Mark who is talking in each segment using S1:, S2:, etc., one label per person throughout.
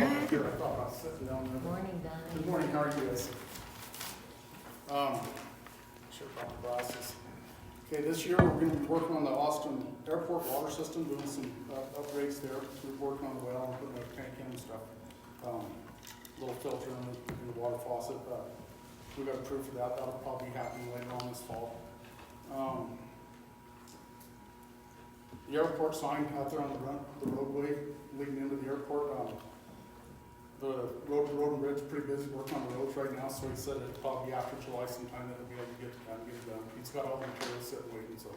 S1: I thought about sitting down there.
S2: Morning, Don.
S1: Good morning, how are you guys? Um, Sure about the glasses. Okay, this year, we're gonna be working on the Austin Airport water system, doing some uh, upgrades there. We're working on the well, and putting a tank in and stuff. Um, Little filter in the- in the water faucet, uh, we got approved for that, that'll probably happen later on this fall. Um, The airport sign out there on the run, the roadway leading into the airport, um, the road, road and bridge is pretty busy working on the roads right now, so he said it'd probably be after July sometime that we'll be able to get, kind of get it done. He's got all the materials set and waiting, so.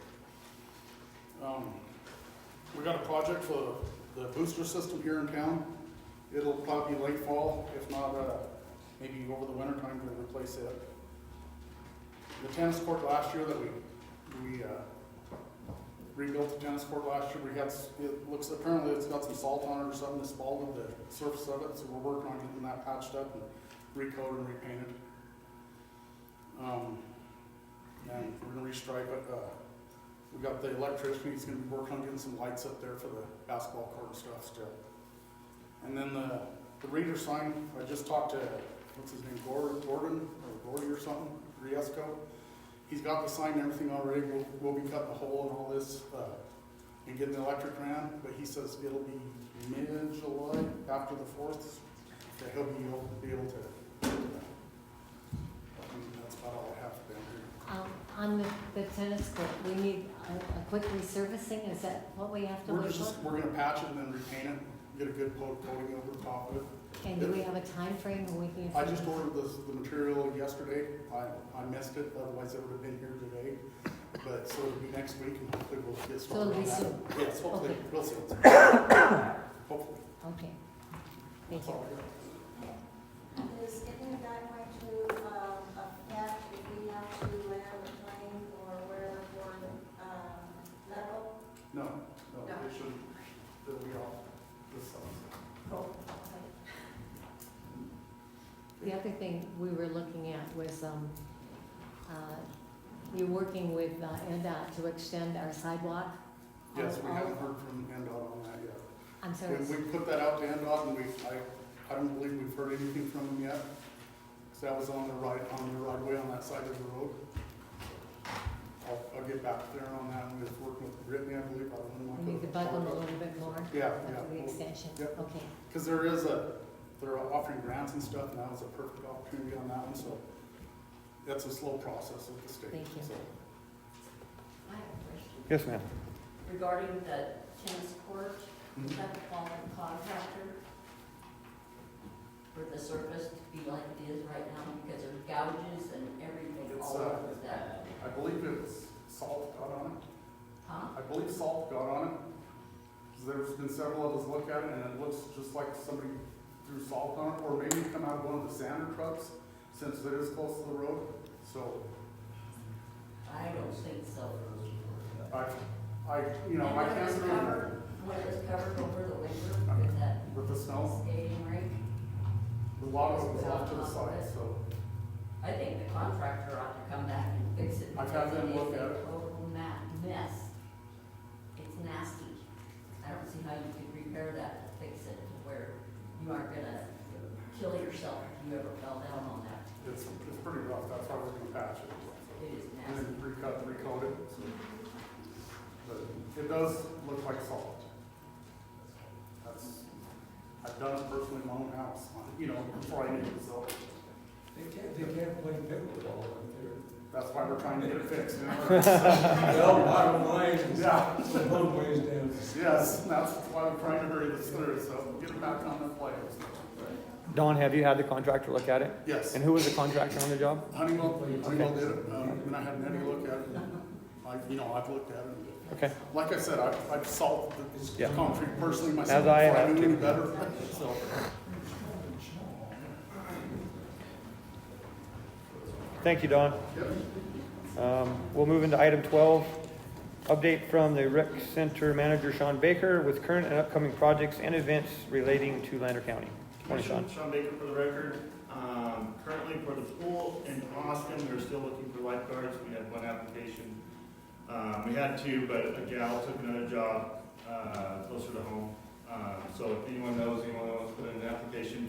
S1: Um, we got a project for the booster system here in town. It'll probably be late fall, if not, uh, maybe over the winter time to replace it. The tennis court last year that we, we, uh, rebuilt the tennis court last year, we had, s- it looks, apparently it's got some salt on it or something, it's bald with the surface of it, so we're working on getting that patched up and recolored and repainted. Um, and we're gonna restripe it, uh, we got the electrician, he's gonna be working on getting some lights up there for the basketball court and stuff still. And then the, the reader sign, I just talked to, what's his name, Gor- Gordon, or Gordy or something, Riesco. He's got the sign and everything already, we'll, we'll be cutting the hole and all this, uh, and getting the electric ran, but he says it'll be mid-July, after the fourth, that he'll be able, be able to. do that. And That's about all I have for down here.
S2: Um, On the- the tennis court, we need a a quick resurfacing, is that what we have to
S1: We're
S2: look for?
S1: just, we're gonna patch it and then repaint it, get a good coat coating over the top of it.
S2: And do we have a time frame when we can?
S1: I just ordered the, the material yesterday, I, I missed it, otherwise it would have been here today. But, so it'll be next week and hopefully we'll get started
S2: it'll
S1: on
S2: be
S1: that.
S2: soon.
S1: Yes, hopefully,
S2: Okay.
S1: real soon. Hopefully,
S2: Okay. Thank
S1: that's
S2: you.
S1: all I got.
S3: Is any going to um, affect if we have to land a plane or wherever for um, medical?
S1: No, no, it shouldn't, it'll be all this summer.
S2: The other thing we were looking at was, um, uh, you're working with uh, NDOT to extend our sidewalk?
S1: Yes, we
S2: All- all-
S1: haven't heard from NDOT on that yet.
S2: I'm sorry,
S1: We, we put that out to NDOT and we, I, I don't believe we've heard anything from them yet. Cause that was on the right, on the right way on that side of the road. I'll, I'll get back there on that, we was working with Brittany, I believe, I don't know. what
S2: we need to
S1: the-
S2: bug them a little bit more
S1: Yeah,
S2: about the
S1: yeah.
S2: extension,
S1: Yep.
S2: okay.
S1: Cause there is a, they're offering grants and stuff, and that was a perfect opportunity on that one, so. That's a slow process with the state.
S2: Thank you.
S1: so.
S4: I have a question
S5: Yes, ma'am.
S4: regarding the tennis court,
S1: Hmm?
S4: is that the fault of the contractor? For the surface to be like it is right now, because there's gouges and everything
S1: It's,
S4: all
S1: uh,
S4: over that,
S1: I believe it was salt got on it.
S4: huh?
S1: I believe salt got on it. 'Cause There's been several of us look at it and it looks just like somebody threw salt on it, or maybe it come out of one of the sander trucks, since it is close to the road. So
S4: I don't think so.
S1: I, I, you know, I can't
S4: And When it was
S1: remember
S4: covered, when it was covered over the winter with that
S1: with the snow,
S4: skating rink,
S1: the lava was off to the side, so.
S4: I think the contractor ought to come back and fix it.
S1: I've had
S4: because
S1: them
S4: it is
S1: look at
S4: a
S1: it.
S4: Total ma- mess. It's nasty. I don't see how you could repair that, and fix it to where you aren't gonna kill yourself if you ever fell down on that.
S1: It's, it's pretty rough, that's why we're gonna patch it.
S4: It is
S1: And
S4: nasty.
S1: then recut, recoat it, so. But it does look like salt. That's, I've done it personally in my own house, you know, before I knew it, so.
S6: They can't, they can't play pickleball up there.
S1: That's why we're trying to get it fixed. now.
S6: Well, bottom line is,
S1: Yeah,
S6: it's a long ways down.
S1: yes, that's why we're trying to hurry this through, so get it back on the players.
S5: Don, have you had the contractor look at it?
S1: Yes,
S5: And who was the contractor on the job?
S1: Honeywell, Honeywell did it, um, and I had Nettie look at it. I, you know, I've looked at it.
S5: Okay.
S1: Like I said, I've, I've solved the
S5: Yeah.
S1: concrete personally myself
S5: As I
S1: before I
S5: have
S1: knew any
S5: too.
S1: better, so.
S5: Thank you, Don. Um, We'll move into item 12. Update from the rec center manager Sean Baker with current and upcoming projects and events relating to Lander County. Morning, Sean.
S7: Sean Baker for the record. Um, Currently for the pool in Austin, we're still looking for lifeguards. We had one application. Um, We had two, but a gal took another job uh, closer to home. Um, So if anyone knows, anyone wants to put in an app-